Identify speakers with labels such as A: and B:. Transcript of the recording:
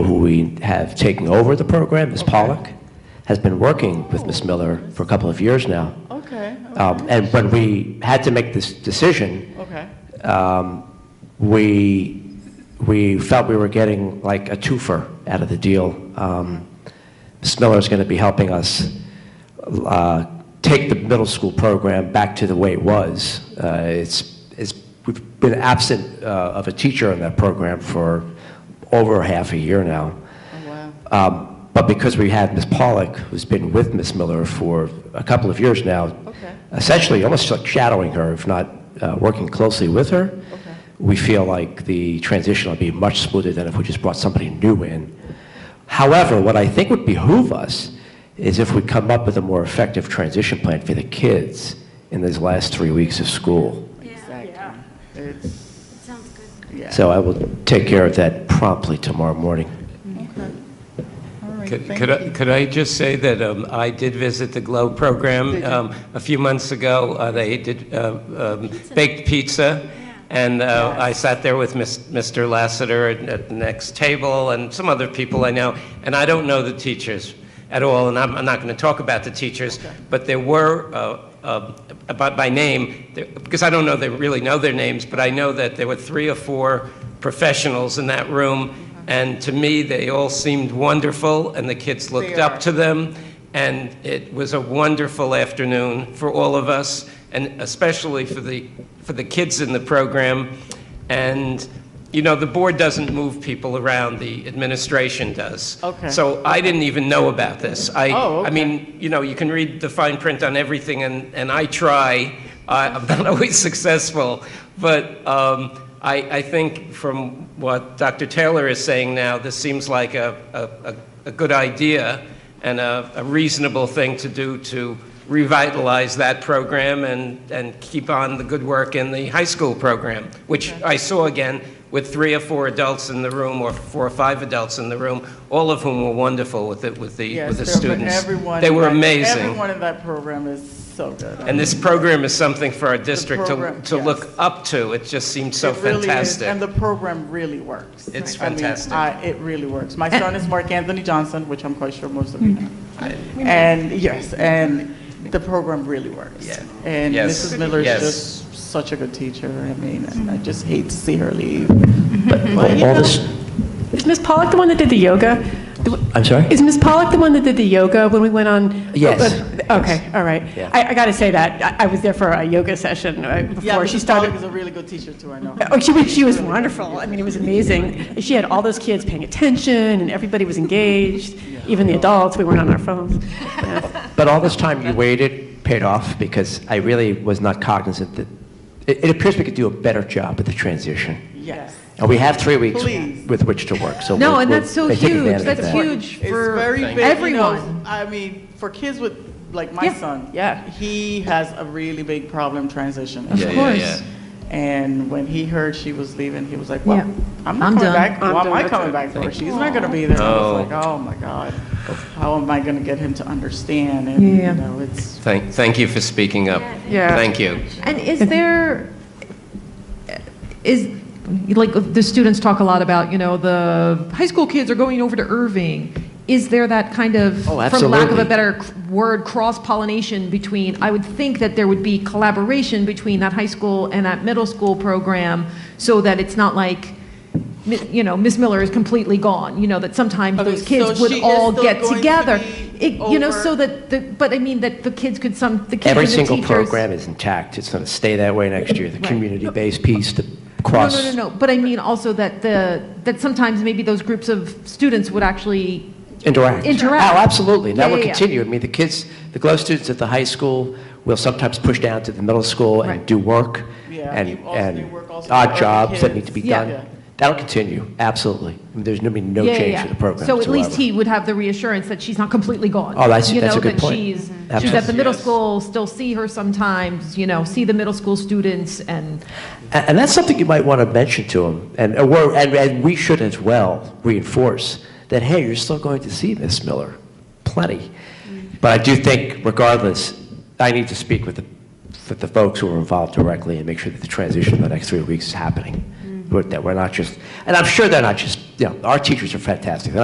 A: we have taking over the program, Ms. Pollock, has been working with Ms. Miller for a couple of years now.
B: Okay,
A: Um, And when we had to make this decision,
B: okay.
A: um, we, we felt we were getting like a twofer out of the deal. Um, Ms. Miller's going to be helping us uh, take the middle school program back to the way it was. Uh, It's, it's, we've been absent uh, of a teacher in that program for over half a year now.
B: Oh, wow.
A: Um, But because we have Ms. Pollock, who's been with Ms. Miller for a couple of years now,
B: Okay.
A: essentially almost like shadowing her, if not uh, working closely with her,
B: Okay.
A: we feel like the transition will be much smoother than if we just brought somebody new in. However, what I think would behoove us is if we come up with a more effective transition plan for the kids in these last three weeks of school.
B: Exactly. It's,
C: Sounds good.
B: yeah.
A: So I will take care of that promptly tomorrow morning.
B: Okay. All right,
D: Could
B: thank
D: could I,
B: you.
D: could I just say that um, I did visit the Glow program um, a few months ago. Uh, They did uh, um, baked pizza, and uh, I sat there with Miss- Mr. Lassiter at- at the next table and some other people I know, and I don't know the teachers at all, and I'm I'm not going to talk about the teachers, but there were, uh, uh, about by name, there- because I don't know, they really know their names, but I know that there were three or four professionals in that room, and to me, they all seemed wonderful, and the kids looked
B: are.
D: up to them. And it was a wonderful afternoon for all of us, and especially for the, for the kids in the program. And, you know, the board doesn't move people around, the administration does.
B: Okay.
D: So I didn't even know about this. I,
B: Oh,
D: I mean, you know, you can read the fine print on everything, and, and I try. I, I'm not always successful, but um, I, I think from what Dr. Taylor is saying now, this seems like a, a, a, a good idea and a, a reasonable thing to do to revitalize that program and, and keep on the good work in the high school program, which I saw again with three or four adults in the room, or four or five adults in the room, all of whom were wonderful with it, with the
B: Yes,
D: with the
B: there- but
D: students.
B: everyone
D: They
B: in
D: were
B: that-
D: amazing.
B: Everyone in that program is so good.
D: And this program is something for our district to,
B: program,
D: to
B: yes.
D: look up to. It just seems so
B: It really is,
D: fantastic.
B: And the program really works.
D: It's
B: I mean,
D: fantastic.
B: I- It really works. My son is Mark Anthony Johnson, which I'm quite sure most of you know. And, yes, and the program really works.
D: Yeah.
B: And
D: Yes.
B: Mrs. Miller is
D: Yes.
B: just such a good teacher, I mean, and I just hate to see her leave. But, you
A: All
B: know,
A: this,
E: Is Ms. Pollock the one that did the yoga? The-
A: I'm sorry?
E: Is Ms. Pollock the one that did the yoga when we went on?
A: Yes.
E: Uh, Okay, all right.
A: Yeah.
E: I, I got to say that, I- I was there for a yoga session uh,
B: Yeah,
E: before she
B: Mrs. Pollock is
E: started.
B: a really good teacher too, I know.
E: Oh, she was, she was wonderful. I mean, it was amazing. She had all those kids paying attention, and everybody was engaged, even the adults, we weren't on our phones. Yeah.
A: But all this time you waited paid off because I really was not cognizant that, it, it appears we could do a better job at the transition.
B: Yes.
A: And we have three weeks
B: Please.
A: with which to work, so.
F: No,
A: we'll-
F: and
A: we'll-
F: that's so
A: I take
F: huge.
A: advantage of
F: That's
A: that.
F: huge
B: It's
F: for
B: very big. you know,
F: everyone.
B: I mean, for kids with, like my
F: Yeah.
B: son.
E: Yeah.
B: He has a really big problem transitioning.
F: Of course.
B: And when he heard she was leaving, he was like, well,
F: Yeah.
B: I'm not
F: I'm
B: coming
F: done.
B: back. Why
E: I'm
B: am I
E: done.
B: coming back for? She's not going to be there. I was like, oh my God, how am I going to get him to understand? And,
F: Yeah.
B: you know, it's,
D: Thank, thank you for speaking up.
E: Yeah.
D: Thank you.
F: And is there, is, like, the students talk a lot about, you know, the high school kids are going over to Irving. Is there that kind of,
A: Oh,
F: for lack of
A: absolutely.
F: a better c- word, cross pollination between, I would think that there would be collaboration between that high school and that middle school program so that it's not like, mi- you know, Miss Miller is completely gone, you know, that sometimes
B: Okay,
F: those
B: so
F: kids
B: she
F: would
B: is
F: all
B: still
F: get
B: going to
F: together.
B: be
F: It- You know,
B: over-
F: so that, the but I mean, that the kids could some, the kids and the
A: Every
F: teachers.
A: single program is intact. It's going to stay that way next year. The community-based piece, the cross.
F: No, no, no, no, but I mean also that the, that sometimes maybe those groups of students would actually,
A: Interact.
F: Interact.
A: Oh, absolutely. And that
F: Yeah,
A: will
F: yeah, yeah.
A: continue. I mean, the kids, the GLOW students at the high school will sometimes push down to the middle school and
F: Right.
A: do work
B: Yeah,
A: and,
B: you also do
A: and
B: work also with
A: odd
B: other
A: jobs that
B: kids.
A: need to be
F: Yeah.
B: Yeah.
A: done. That'll continue, absolutely. I mean, There's going to be no
F: yeah, yeah,
A: change
F: yeah.
A: to the program
F: So at least
A: whatsoever.
F: he would have the reassurance that she's not completely gone.
A: Oh, that's- that's a good point.
F: You know, that she's, she's at
A: Absolutely.
F: the middle
D: Yes.
F: school, still see her sometimes, you know, see the middle school students and,
A: And and that's something you might want to mention to them, and, and we're- and, and we should as well reinforce that, hey, you're still going to see Miss Miller, plenty. But I do think, regardless, I need to speak with the, with the folks who are involved directly and make sure that the transition in the next three weeks is happening. We're- That we're not just, and I'm sure they're not just, you know, our teachers are fantastic. They're